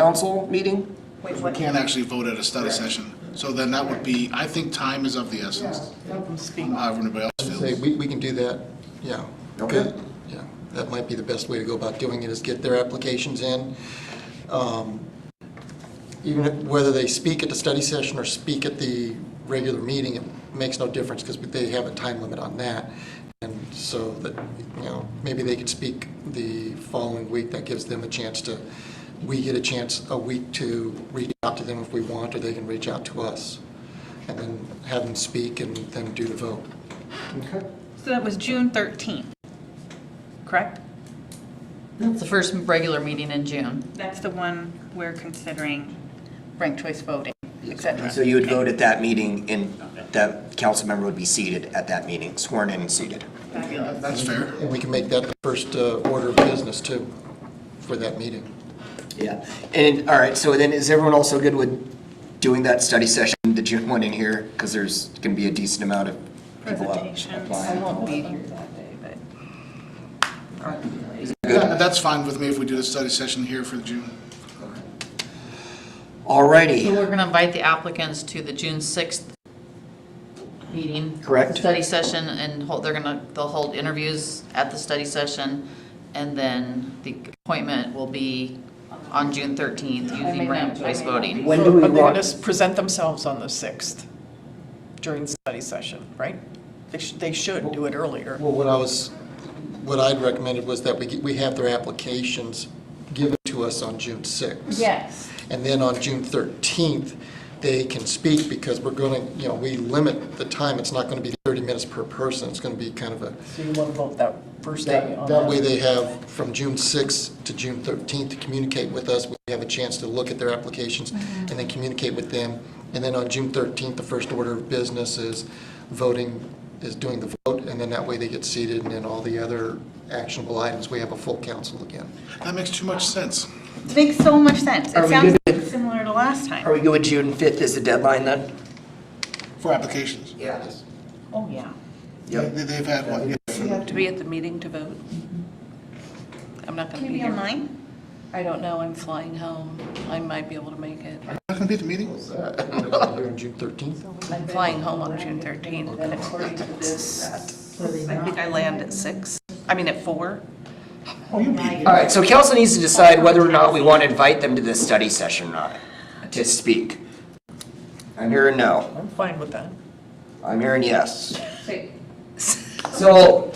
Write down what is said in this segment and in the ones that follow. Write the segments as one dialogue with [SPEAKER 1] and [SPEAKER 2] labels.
[SPEAKER 1] council meeting?
[SPEAKER 2] Wait,
[SPEAKER 3] We
[SPEAKER 2] what?
[SPEAKER 3] can't actually vote at a study session, so then that would be, I think time is of the essence. However, anybody else
[SPEAKER 4] Say,
[SPEAKER 3] feels.
[SPEAKER 4] we, we can do that, yeah.
[SPEAKER 1] Okay.
[SPEAKER 4] Good. Yeah, that might be the best way to go about doing it, is get their applications in. Um, Even if- whether they speak at the study session or speak at the regular meeting, it makes no difference, because they have a time limit on that. And so that, you know, maybe they could speak the following week, that gives them a chance to, we get a chance a week to reach out to them if we want, or they can reach out to us. And then have them speak and then do the vote.
[SPEAKER 5] So that was June 13th, correct?
[SPEAKER 6] That's the first regular meeting in June.
[SPEAKER 5] That's the one we're considering ranked choice voting, et cetera.
[SPEAKER 1] So you would vote at that meeting and that council member would be seated at that meeting, sworn in and seated.
[SPEAKER 5] Fabulous.
[SPEAKER 3] That's fair.
[SPEAKER 4] And we can make that the first uh, order of business too, for that meeting.
[SPEAKER 1] Yeah. And, all right, so then is everyone also good with doing that study session, the June one in here? Because there's going to be a decent amount of people up-
[SPEAKER 5] Presentations.
[SPEAKER 6] I
[SPEAKER 1] applying.
[SPEAKER 6] won't be here that day, but.
[SPEAKER 3] Yeah, That's fine with me if we do the study session here for June.
[SPEAKER 1] All
[SPEAKER 6] So
[SPEAKER 1] righty.
[SPEAKER 6] we're going to invite the applicants to the June 6th meeting.
[SPEAKER 1] Correct.
[SPEAKER 6] Study session, and hold- they're going to, they'll hold interviews at the study session, and then the appointment will be on June 13th using ranked choice voting.
[SPEAKER 1] When do
[SPEAKER 7] So
[SPEAKER 1] we
[SPEAKER 7] Are they going
[SPEAKER 1] want,
[SPEAKER 7] to present themselves on the 6th during study session, right? They should, they should do it earlier.
[SPEAKER 4] Well, what I was, what I'd recommended was that we, get- we have their applications given to us on June 6th.
[SPEAKER 6] Yes.
[SPEAKER 4] And then on June 13th, they can speak because we're going to, you know, we limit the time. It's not going to be 30 minutes per person. It's going to be kind of a,
[SPEAKER 7] So you want to vote that first day
[SPEAKER 4] that
[SPEAKER 7] on
[SPEAKER 4] that way
[SPEAKER 7] that?
[SPEAKER 4] they have from June 6th to June 13th to communicate with us. We have a chance to look at their applications and then communicate with them. And then on June 13th, the first order of business is voting, is doing the vote, and then that way they get seated, and then all the other actionable items, we have a full council again.
[SPEAKER 3] That makes too much sense.
[SPEAKER 5] It Makes so much sense.
[SPEAKER 1] Are
[SPEAKER 5] It
[SPEAKER 1] we
[SPEAKER 5] sounds
[SPEAKER 1] good?
[SPEAKER 5] similar to last
[SPEAKER 1] are
[SPEAKER 5] time.
[SPEAKER 1] we good with June fifth as the deadline then?
[SPEAKER 3] For applications.
[SPEAKER 1] Yes.
[SPEAKER 7] Oh, yeah.
[SPEAKER 3] They-
[SPEAKER 1] Yep.
[SPEAKER 3] They've had one.
[SPEAKER 8] Do you have to be at the meeting to vote? I'm not
[SPEAKER 5] Can
[SPEAKER 8] going to
[SPEAKER 5] you
[SPEAKER 8] be
[SPEAKER 5] be
[SPEAKER 8] here.
[SPEAKER 5] online?
[SPEAKER 8] I don't know, I'm flying home. I might be able to make it.
[SPEAKER 3] Not gonna be at the meeting?
[SPEAKER 4] Here on June 13th?
[SPEAKER 8] I'm flying home on June 13th, and according to this, I think I land at 6, I mean at 4.
[SPEAKER 1] All right, so council needs to decide whether or not we want to invite them to this study session or not, to speak. I'm hearing no.
[SPEAKER 7] I'm fine with that.
[SPEAKER 1] I'm hearing yes. So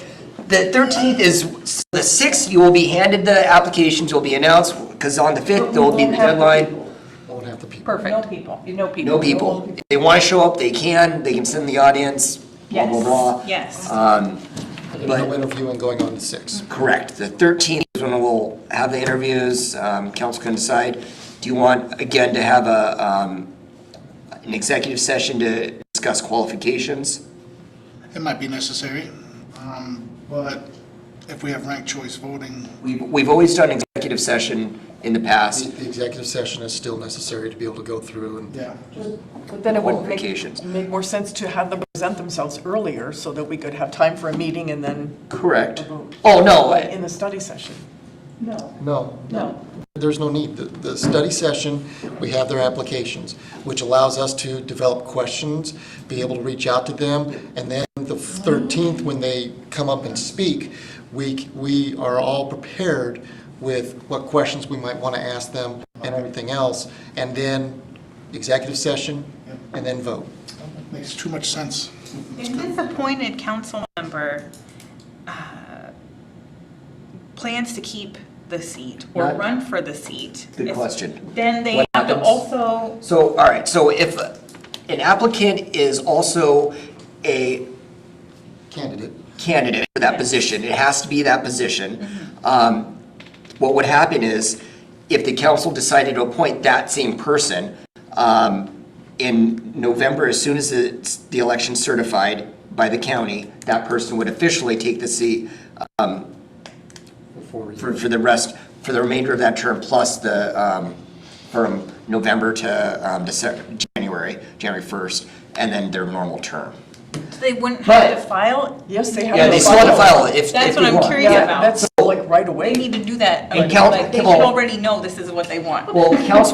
[SPEAKER 1] the 13th is, the 6th, you will be handed, the applications will be announced, because on the 5th, there will be the deadline.
[SPEAKER 4] Won't have the people.
[SPEAKER 7] No
[SPEAKER 8] Perfect.
[SPEAKER 7] people.
[SPEAKER 8] You know people.
[SPEAKER 1] No people. If they want to show up, they can, they can sit in the audience, blah, blah, blah.
[SPEAKER 5] Yes.
[SPEAKER 1] Um,
[SPEAKER 4] No interviewing going on the 6th.
[SPEAKER 1] Mm-hmm. Correct. The 13th is when we'll have the interviews. Um, Council can decide. Do you want, again, to have a, um, an executive session to discuss qualifications?
[SPEAKER 3] It might be necessary, um, but if we have ranked choice voting,
[SPEAKER 1] We've, we've always done executive session in the
[SPEAKER 4] The
[SPEAKER 1] past.
[SPEAKER 4] the executive session is still necessary to be able to go through and
[SPEAKER 3] yeah.
[SPEAKER 7] But then it would make,
[SPEAKER 1] Qualifications.
[SPEAKER 7] make more sense to have them present themselves earlier so that we could have time for a meeting and then
[SPEAKER 1] Correct.
[SPEAKER 7] a vote.
[SPEAKER 1] Oh, no, I-
[SPEAKER 7] In the study session.
[SPEAKER 4] No.
[SPEAKER 7] No.
[SPEAKER 4] There's no need. The, the study session, we have their applications, which allows us to develop questions, be able to reach out to them, and then the thirteenth, when they come up and speak, we, c- we are all prepared with what questions we might want to ask them and everything else, and then executive session, and then vote.
[SPEAKER 3] Makes too much sense.
[SPEAKER 5] Is this appointed council member uh, plans to keep the seat or
[SPEAKER 1] Not-
[SPEAKER 5] run for the seat?
[SPEAKER 1] Good
[SPEAKER 5] Is-
[SPEAKER 1] question.
[SPEAKER 5] Then they
[SPEAKER 1] What
[SPEAKER 5] have to
[SPEAKER 1] happens?
[SPEAKER 5] also,
[SPEAKER 1] so, all right, so if an applicant is also a
[SPEAKER 4] Candidate.
[SPEAKER 1] candidate for that position. It has to be that position. Um, What would happen is, if the council decided to appoint that same person, um, in November, as soon as it's the election's certified by the county, that person would officially take the seat um,
[SPEAKER 4] before we-
[SPEAKER 1] for, for the rest, for the remainder of that term, plus the, um, from November to, um, December, January, January 1st, and then their normal term.
[SPEAKER 5] They wouldn't have
[SPEAKER 1] But-
[SPEAKER 5] to file?
[SPEAKER 7] Yes, they have.
[SPEAKER 1] Yeah, they still have to file if, if
[SPEAKER 5] That's
[SPEAKER 1] we
[SPEAKER 5] what I'm
[SPEAKER 1] want.
[SPEAKER 5] curious
[SPEAKER 7] Yeah,
[SPEAKER 5] about.
[SPEAKER 7] that's like right away.
[SPEAKER 5] They need to do that.
[SPEAKER 1] And count-
[SPEAKER 5] Like, They should
[SPEAKER 1] well-
[SPEAKER 5] already know this is what they want.
[SPEAKER 1] Well, council